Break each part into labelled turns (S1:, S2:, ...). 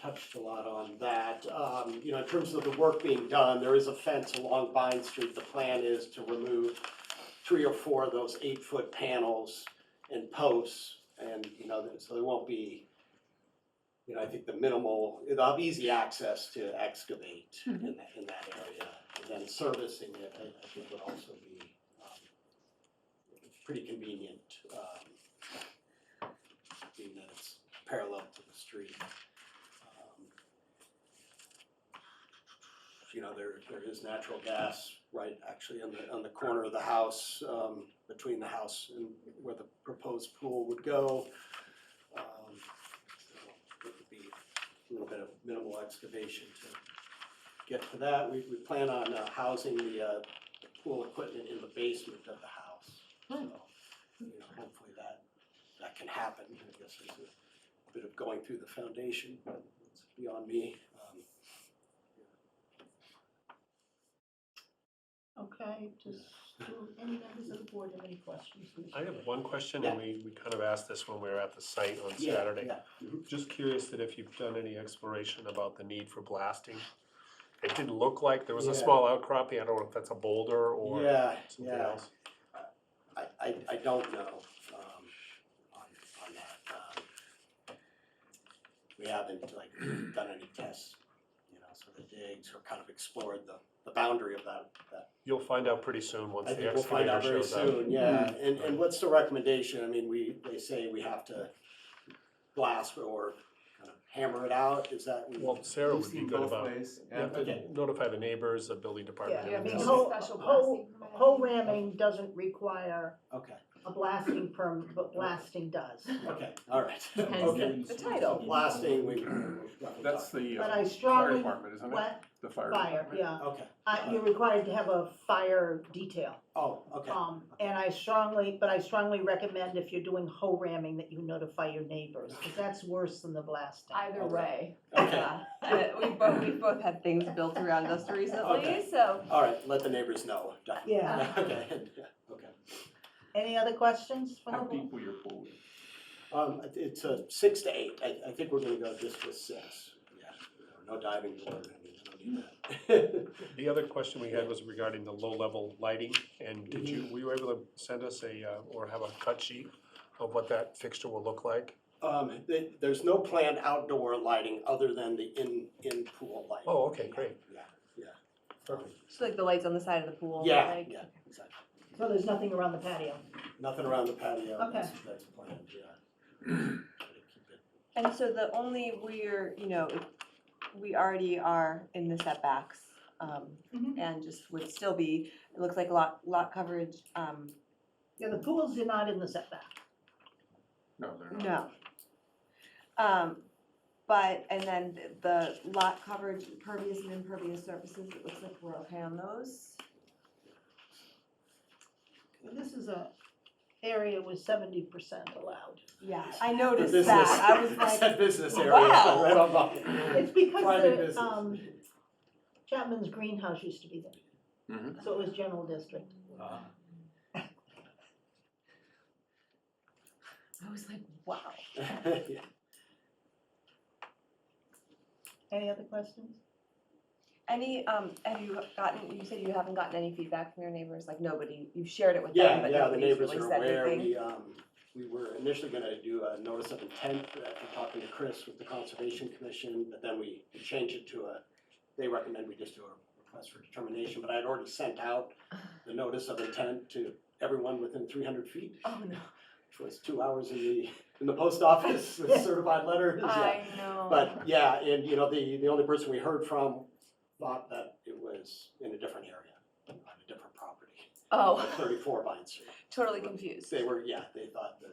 S1: touched a lot on that. Um, you know, in terms of the work being done, there is a fence along Vine Street. The plan is to remove three or four of those eight-foot panels and posts. And, you know, so there won't be, you know, I think the minimal, it'll have easy access to excavate in that, in that area. And then servicing it, I, I think would also be, um, pretty convenient, um, being that it's parallel to the street. Um, You know, there, there is natural gas right actually on the, on the corner of the house, um, between the house and where the proposed pool would go. Um, so It would be a little bit of minimal excavation to get to that. We, we plan on uh, housing the, uh, pool equipment in the basement of the house. So, you know, hopefully that, that can happen, I guess there's a bit of going through the foundation, but it's beyond me. Um,
S2: Okay, does, do any members of the board have any questions? for Mr.
S3: I have
S2: Ray?
S3: one question, and we, we kind of asked this when we were at the site on
S1: yeah,
S3: Saturday.
S1: yeah.
S3: Just curious that if you've done any exploration about the need for blasting? It didn't look like, there was
S1: Yeah.
S3: a small outcropping, I don't know if that's a boulder or
S1: Yeah,
S3: something
S1: yeah,
S3: else.
S1: I, I, I don't know, um, on, on that, um. We haven't like done any tests, you know, sort of digs or kind of explored the, the boundary of that, that
S3: You'll find out pretty soon once
S1: I
S3: the
S1: think we'll find
S3: excavator
S1: out very
S3: shows up.
S1: soon, yeah, and, and what's the recommendation, I mean, we, they say we have to blast or kind of hammer it out, is that?
S3: Well, Sarah
S4: We've
S3: would be
S4: seen
S3: good
S4: both
S3: about,
S4: ways,
S3: you have
S4: yeah.
S3: to notify the neighbors, the building department.
S5: Yeah,
S2: Yeah,
S3: and
S2: maybe
S3: this.
S5: ho-
S2: whole-
S5: special
S2: whole-
S5: blasting permit.
S2: Hole ramming doesn't require
S1: Okay,
S2: a blasting permit, but blasting does.
S1: okay, all right.
S5: Hence
S1: Okay.
S5: the, the
S1: So
S5: title.
S1: Blasting, we.
S4: That's the
S2: But
S4: uh,
S2: I
S4: fire
S2: strongly,
S4: department, isn't it?
S2: what,
S4: The fire
S2: fire,
S4: department.
S2: yeah,
S1: Okay,
S2: I, you're required to have a fire detail.
S1: oh, okay,
S2: Um, and I strongly, but I strongly recommend if you're doing hole ramming that you notify your neighbors, because that's worse than the blasting.
S5: Either
S1: Okay.
S5: way,
S1: okay,
S5: yeah.
S6: Uh, we've both, we've both had things built around us recently,
S1: Okay.
S6: so.
S1: all right, let the neighbors know, done.
S2: Yeah.
S1: Okay, okay.
S2: Any other questions from the
S4: How
S2: board?
S4: deep will your pool be?
S1: Um, it- it's a six to eight, I, I think we're gonna go just with six, yeah, no diving board, I mean, I don't need that.
S3: The other question we had was regarding the low-level lighting, and did you,
S1: Mm-hmm.
S3: were you able to send us a, uh, or have a cut sheet of what that fixture will look like?
S1: Um, th there's no planned outdoor lighting other than the in, in pool lighting.
S3: Oh, okay, great.
S1: Yeah,
S3: Perfect.
S6: Just like the lights on the side of the pool.
S1: yeah,
S6: like-
S1: yeah, exactly.
S2: So there's nothing around the patio?
S1: Nothing around the patio,
S2: Okay.
S1: that's, that's planned, yeah. Gotta keep it-
S6: And so the only, we're, you know, if- we already are in the setbacks. um,
S1: Mm-hmm.
S2: Mhm.
S6: And just would still be, it looks like lot, lot coverage, um,
S2: Yeah, the pools are not in the setback.
S4: No, they're not.
S6: no. Um, But, and then the lot coverage, pervious and impervious surfaces, it looks like we're okay on those.
S2: This is a area with seventy percent allowed.
S6: Yeah, I
S1: the
S6: noticed
S1: business-
S6: that. I was
S1: it's
S6: like,
S1: that business area,
S6: wow.
S1: right on by-
S2: It's because
S1: private
S2: the, um,
S1: business.
S2: Chapman's greenhouse used to be there.
S4: Mhm.
S2: So it was general district.
S1: Uh,
S6: I was like, wow.
S1: yeah.
S2: Any other questions?
S6: Any, um, have you gotten, you said you haven't gotten any feedback from your neighbors, like nobody, you've shared it with them,
S1: Yeah,
S6: but
S1: yeah, the
S6: nobody's
S1: neighbors
S6: really
S1: are
S6: said
S1: aware,
S6: anything?
S1: we, um, we were initially gonna do a notice of intent after talking to Chris with the Conservation Commission, but then we changed it to a, they recommend we just do a request for determination, but I had already sent out the notice of intent to everyone within three hundred feet,
S6: Oh, no.
S1: which was two hours in the, in the post office with certified letters. yeah.
S6: I know.
S1: But yeah, and you know, the, the only person we heard from thought that it was in a different area, on a different property,
S6: Oh,
S1: like thirty-four Vine Street.
S6: totally confused.
S1: They were, yeah, they thought that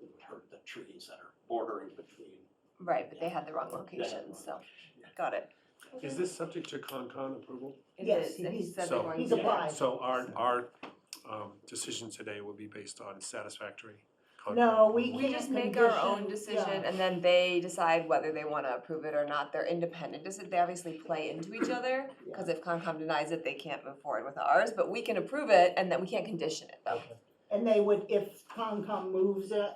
S1: it would hurt the trees that are bordering between.
S6: Right, but they had the wrong
S1: Yeah.
S6: location, so, got it.
S3: Is this subject to Concon approval?
S6: It
S2: Yes,
S6: is, and he
S2: he's-
S6: said they
S3: So-
S6: weren't
S2: He's
S6: there.
S2: applied.
S3: So our, our um, decision today will be based on satisfactory Concon.
S2: No,
S3: approval.
S6: We
S2: Yeah,
S6: just make our own
S2: condition,
S6: decision,
S2: yeah.
S6: and then they decide whether they wanna approve it or not, they're independent, Does it- they obviously play into each other, cause if Concom denies it, they can't move forward with ours, but we can approve it, and then we can't condition it though.
S3: Okay.
S2: And they would, if Concom moves it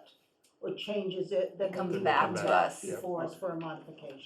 S2: or changes it, then
S6: It comes
S2: they would
S6: back
S2: come
S3: to
S2: back
S6: us.
S2: Before us for a modification.